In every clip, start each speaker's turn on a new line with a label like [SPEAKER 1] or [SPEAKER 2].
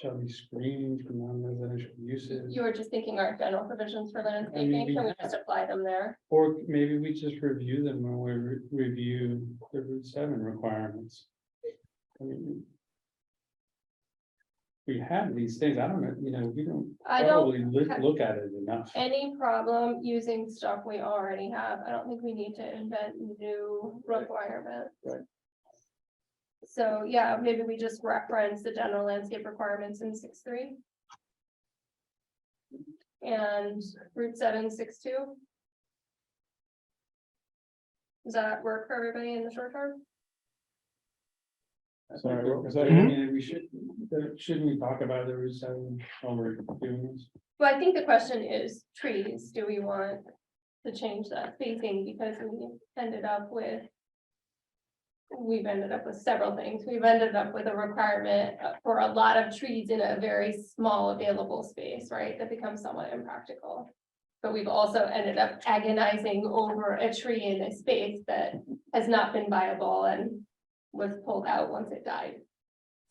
[SPEAKER 1] shall be screened from non-residential uses.
[SPEAKER 2] You were just thinking our general provisions for landscaping, can we just apply them there?
[SPEAKER 1] Or maybe we just review them when we re- review the Route seven requirements. I mean. We have these things, I don't know, you know, we don't
[SPEAKER 2] I don't,
[SPEAKER 1] probably look,
[SPEAKER 2] ha-
[SPEAKER 1] look at it enough.
[SPEAKER 2] any problem using stuff we already have, I don't think we need to invent new
[SPEAKER 1] Right.
[SPEAKER 2] requirements.
[SPEAKER 1] Right.
[SPEAKER 2] So, yeah, maybe we just reference the general landscape requirements in six three. And Route seven, six two. Does that work for everybody in the short term?
[SPEAKER 1] I think
[SPEAKER 3] Sorry,
[SPEAKER 1] that-
[SPEAKER 3] what was
[SPEAKER 1] I
[SPEAKER 3] that?
[SPEAKER 1] mean, we should, that- shouldn't we talk about the Route seven while we're doing this?
[SPEAKER 2] Well, I think the question is trees, do we want to change that spacing because we ended up with. We've ended up with several things, we've ended up with a requirement uh, for a lot of trees in a very small available space, right, that becomes somewhat impractical. But we've also ended up agonizing over a tree in a space that has not been viable and was pulled out once it died.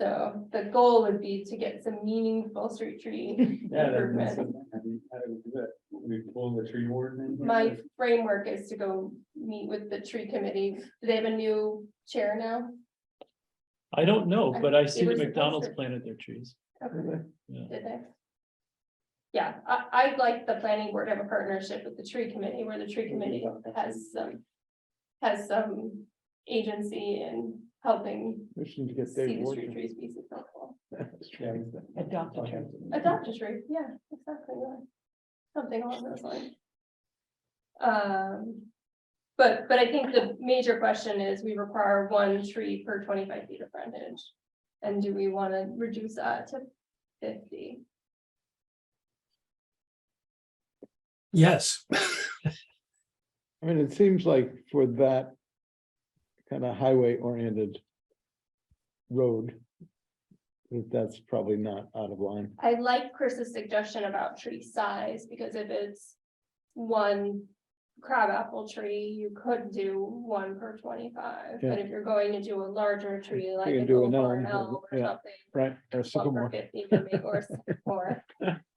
[SPEAKER 2] So the goal would be to get some meaningful street tree
[SPEAKER 1] Yeah, that- that's,
[SPEAKER 2] Improvement.
[SPEAKER 1] the- I mean, how do we do that? We pull the tree warden in.
[SPEAKER 2] My framework is to go meet with the tree committee. Do they have a new chair now?
[SPEAKER 3] I don't know, but I see
[SPEAKER 2] were
[SPEAKER 3] that
[SPEAKER 2] supposed
[SPEAKER 3] McDonald's
[SPEAKER 2] to-
[SPEAKER 3] planted their trees.
[SPEAKER 2] Okay,
[SPEAKER 3] Yeah.
[SPEAKER 2] Did they? Yeah, I, I'd like the planning board to have a partnership with the tree committee where the tree committee has some, has some agency in helping
[SPEAKER 3] Wishing to
[SPEAKER 2] see the street trees be successful.
[SPEAKER 1] Yeah.
[SPEAKER 3] Adopt a tree.
[SPEAKER 2] Adopt a tree, yeah, exactly, yeah. something along those lines. Um, but, but I think the major question is, we require one tree per twenty-five feet of frontage. And do we wanna reduce that to fifty?
[SPEAKER 4] Yes,
[SPEAKER 5] I mean, it seems like for that kind of highway oriented road, that that's probably not out of line.
[SPEAKER 2] I like Chris's suggestion about tree size, because if it's one crabapple tree, you could do one per twenty-five. But
[SPEAKER 5] Yeah.
[SPEAKER 2] if you're going to do a larger tree, like
[SPEAKER 5] can
[SPEAKER 2] an
[SPEAKER 5] do an
[SPEAKER 2] oak or an
[SPEAKER 5] elm,
[SPEAKER 2] elm or
[SPEAKER 5] yeah.
[SPEAKER 2] something,
[SPEAKER 5] Right. Or
[SPEAKER 2] One per
[SPEAKER 5] sycamore.
[SPEAKER 2] fifty would make or more.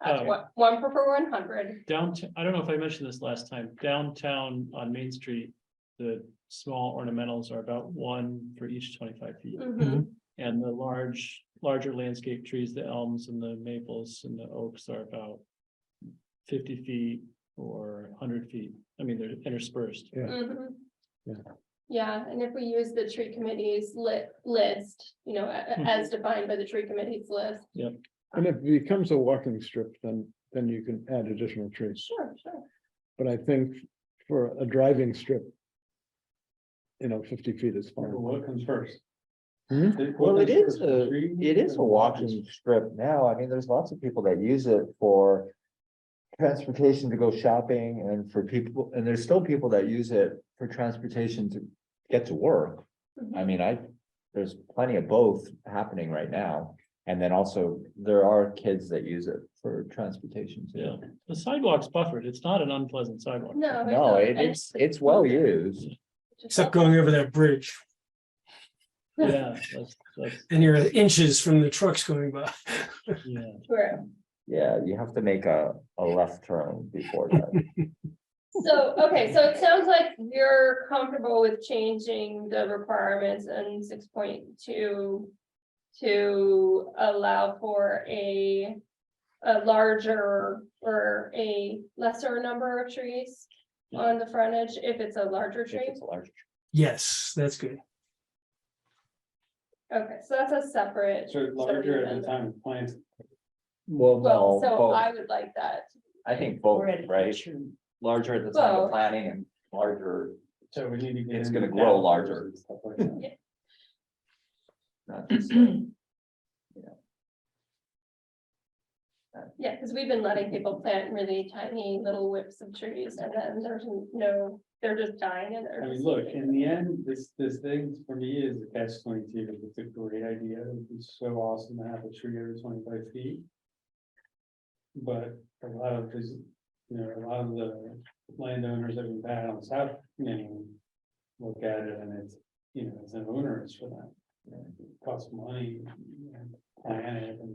[SPEAKER 3] Oh.
[SPEAKER 2] One per per one hundred,
[SPEAKER 3] Downtown, I don't know if I mentioned this last time, downtown on Main Street, the small ornamentals are about one for each twenty-five feet.
[SPEAKER 6] Mm-hmm.
[SPEAKER 2] Mhm.
[SPEAKER 3] And the large, larger landscape trees, the elms and the maples and the oaks are about fifty feet or hundred feet. I mean, they're interspersed.
[SPEAKER 2] mhm.
[SPEAKER 5] Yeah.
[SPEAKER 2] Yeah, and if we use the tree committee's lit list, you know, a-
[SPEAKER 6] Mm-hmm.
[SPEAKER 2] a- as defined by the tree committee's list.
[SPEAKER 5] And if it becomes a walking strip, then, then you can add additional trees.
[SPEAKER 2] Sure, sure.
[SPEAKER 5] But I think for a driving strip, you know, fifty feet is
[SPEAKER 1] Well,
[SPEAKER 5] fine.
[SPEAKER 1] What comes first?
[SPEAKER 5] Hmm?
[SPEAKER 6] Well, it is a,
[SPEAKER 1] Tree
[SPEAKER 6] it is a
[SPEAKER 1] or
[SPEAKER 6] walking strip now. I mean, there's lots of people that use it for. Transportation to go shopping and for people, and there's still people that use it for transportation to get to work. I
[SPEAKER 2] Mhm.
[SPEAKER 6] mean, I, there's plenty of both happening right now. And then also there are kids that use it for transportation
[SPEAKER 3] Yeah,
[SPEAKER 6] too.
[SPEAKER 3] the sidewalk's buffered. It's not an unpleasant sidewalk.
[SPEAKER 2] No. it's
[SPEAKER 6] No,
[SPEAKER 2] not,
[SPEAKER 6] it-
[SPEAKER 2] Oh, and
[SPEAKER 6] it's, it's well used.
[SPEAKER 2] just-
[SPEAKER 4] except going over that bridge
[SPEAKER 3] Yeah, that's, that's,
[SPEAKER 4] and you're inches from the trucks going by.
[SPEAKER 3] yeah.
[SPEAKER 2] True.
[SPEAKER 6] Yeah, you have to make a, a left turn before that.
[SPEAKER 2] So, okay, so it sounds like you're comfortable with changing the requirements in six point two. To allow for a, a larger or a lesser number of trees. On the frontage, if it's a larger
[SPEAKER 6] If
[SPEAKER 2] tree,
[SPEAKER 6] it's a large
[SPEAKER 4] Yes, that's good.
[SPEAKER 2] okay, so that's a separate.
[SPEAKER 1] So larger at the time of plant.
[SPEAKER 6] Well,
[SPEAKER 2] Well,
[SPEAKER 6] no,
[SPEAKER 2] so
[SPEAKER 6] both.
[SPEAKER 2] I would like that,
[SPEAKER 6] I think both, right? Larger at the time
[SPEAKER 2] Well-
[SPEAKER 6] of planning and larger,
[SPEAKER 1] So we need to get.
[SPEAKER 6] It's
[SPEAKER 1] into
[SPEAKER 6] gonna grow
[SPEAKER 1] downfalls
[SPEAKER 6] larger.
[SPEAKER 1] and stuff like that.
[SPEAKER 6] not just. uh,
[SPEAKER 2] yeah, because we've been letting people plant really tiny little whips of trees and then there's no, they're just dying and they're.
[SPEAKER 1] I mean,
[SPEAKER 2] just
[SPEAKER 1] look,
[SPEAKER 2] leaving.
[SPEAKER 1] in the end, this, this thing for me is a catch twenty-two. It's a great idea. It's so awesome to have a tree every twenty-five feet. But a lot of, this- you know, a lot of the landowners that we've had on South Main look at it and it's, you know, it's an onerous for them. It Costs money, you know, planning,